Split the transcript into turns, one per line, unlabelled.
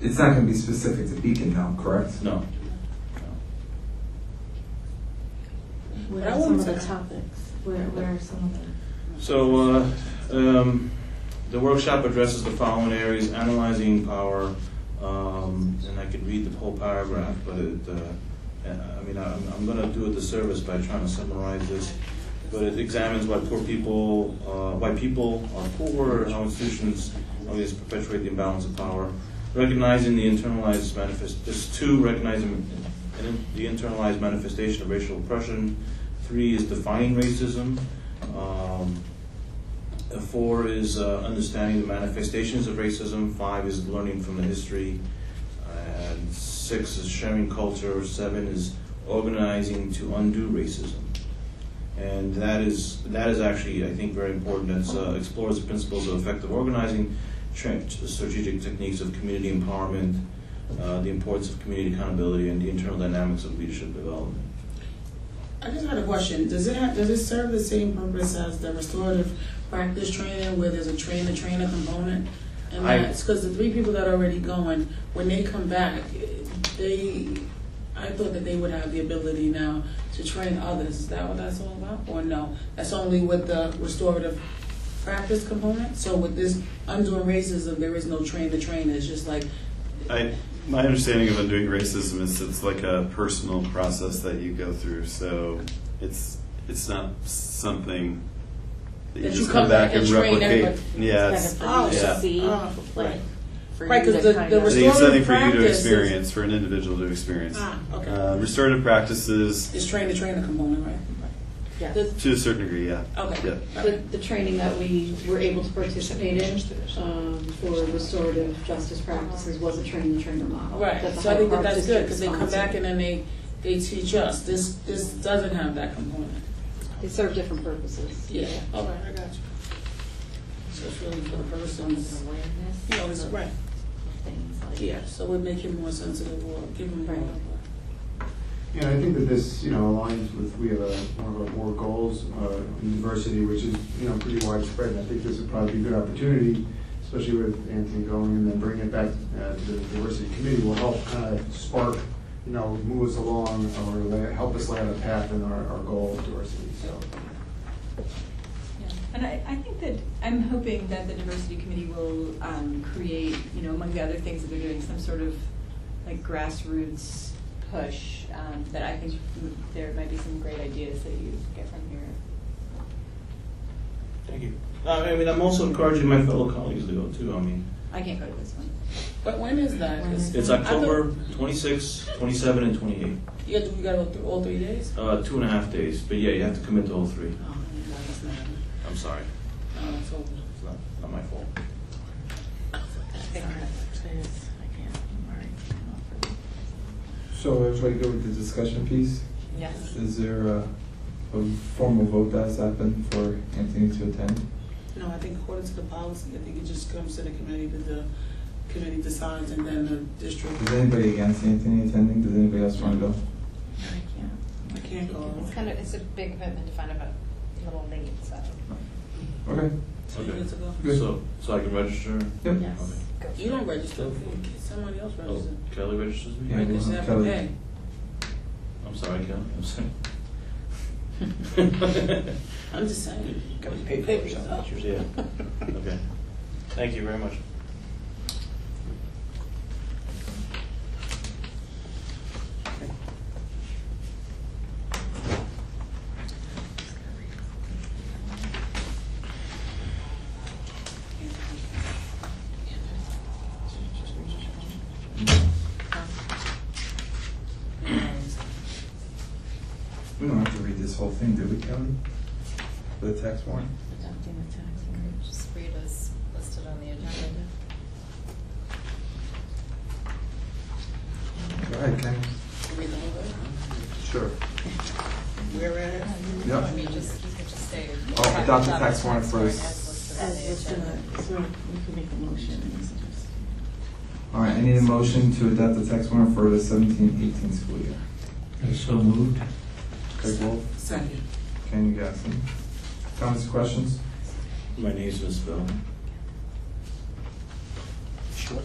It's not gonna be specific to Beacon now, correct?
No.
What
But I
are some
want
of the
to-
topics? Where, where are some of them?
So, uh, um, the workshop addresses the following areas, analyzing power, um, and I could read the whole paragraph, but it, uh, I I mean, I'm, I'm gonna do it the service by trying to summarize this. But it examines why poor people, uh, why people are poor, and how institutions always perpetuate the imbalance of power. Recognizing the internalized manifest, there's two, recognizing in- the internalized manifestation of racial oppression. Three is defining racism. Um, uh, Four is uh, understanding the manifestations of racism. Five is learning from the history. And six is sharing culture. Seven is organizing to undo racism. And that is that is actually, I think, very important. It uh, explores the principles of effective organizing, tra- strategic techniques of community empowerment, uh, the importance of community accountability, and the internal dynamics of leadership development.
I just had a question. Does it have, does it serve the same purpose as the restorative practice training where there's a train the trainer component? And
I-
that's because the three people that are already going, when they come back, they, I thought that they would have the ability now to train others. Is that what that's all about? Or no? That's only with the restorative practice component? So with this undoing racism, there is no train the trainer. It's just like,
I, my understanding of undoing racism is it's like a personal process that you go through. So it's it's not something that you
That you
just
come
come back
back
and
and train
replicate.
everybody.
Yeah,
It's
it's,
kind of for you to
yeah.
see,
oh,
like,
right.
for
Right,
you
'cause
to
the-
kind
the
of-
I think it's something
Restorative
for you to
practices.
experience, for an individual to experience.
ah, okay.
Uh, restorative practices
it's train the trainer component, right?
Yeah.
The-
to a certain degree, yeah.
Okay.
Yeah.
The, the training that we were able to participate in um, for restorative justice practices was a train the trainer model.
Right,
that the
so I think
Hyde
that
Park
that's
District
good, because they come
sponsored.
back and then they, they teach us, this, this doesn't have that component.
They serve different purposes.
Yeah, all right, I got you. So it's really for the person's, you know,
Awareness
it's, right,
of things like.
yeah, so we make him more sensitive or give him more.
Right.
Yeah, I think that this, you know, aligns with, we have a, one of our more goals uh, in diversity, which is, you know, pretty widespread. And I think this would probably be a good opportunity, especially with Anthony going and then bringing it back uh, to the diversity committee will help kind of spark, you know, move us along or la- help us lay out a path in our, our goal of diversity, so.
Yeah, And I, I think that, I'm hoping that the diversity committee will um, create, you know, among the other things that they're doing, some sort of like grassroots push um, that I think would- there might be some great ideas that you get from here.
Thank you. Uh, I mean, I'm also encouraging my fellow colleagues to go too. I mean,
I can't go to this one.
But when is that? 'Cause
It's
I thought-
October 26, 27, and 28.
Yeah, do we got all, th- all three days?
Uh, two and a half days, but yeah, you have to commit to all three.
Oh, no, it's not,
I'm sorry,
no, Oh, it's over.
it's not, not my fault.
Sorry, please, I can't, all right.
So everybody good with the discussion piece?
Yes.
Is there a, a formal vote that's happened for Anthony to attend?
No, I think according to the policy, I think it just comes to the committee, that the committee decides, and then the district,
Is anybody against Anthony attending? Does anybody else want to go?
I can't.
I can't go.
It's kind of, it's a big commitment to find out about a little late, so.
Okay.
So you get to go.
Good.
So, so I can register?
Yep.
Okay.
Yes.
You don't register, somebody else
Oh,
registers.
Kelly registers me?
Yeah.
Right, 'cause you have to
Kelly.
pay.
I'm sorry, Kelly, I'm sorry.
I'm just saying.
Gotta pay for it, some pictures, yeah. Okay. Thank you very much.
We don't have to read this whole thing, do we, Kelly? For the tax warrant?
Adopting the tax and just read as listed on the agenda.
Go ahead, Ken. Sure.
Whereas,
I
Yep.
mean, just, you could just say.
Oh, adopt the tax warrant first.
As listed
As
on the
listed,
agenda.
on- so we can make a motion. and it's just-
All right, I need a motion to adopt the tax warrant for the 17-18 school year.
So moved.
Craig Wolf,
second.
Ken Gaskin. Comments, questions?
My name's misspelled.
Sure.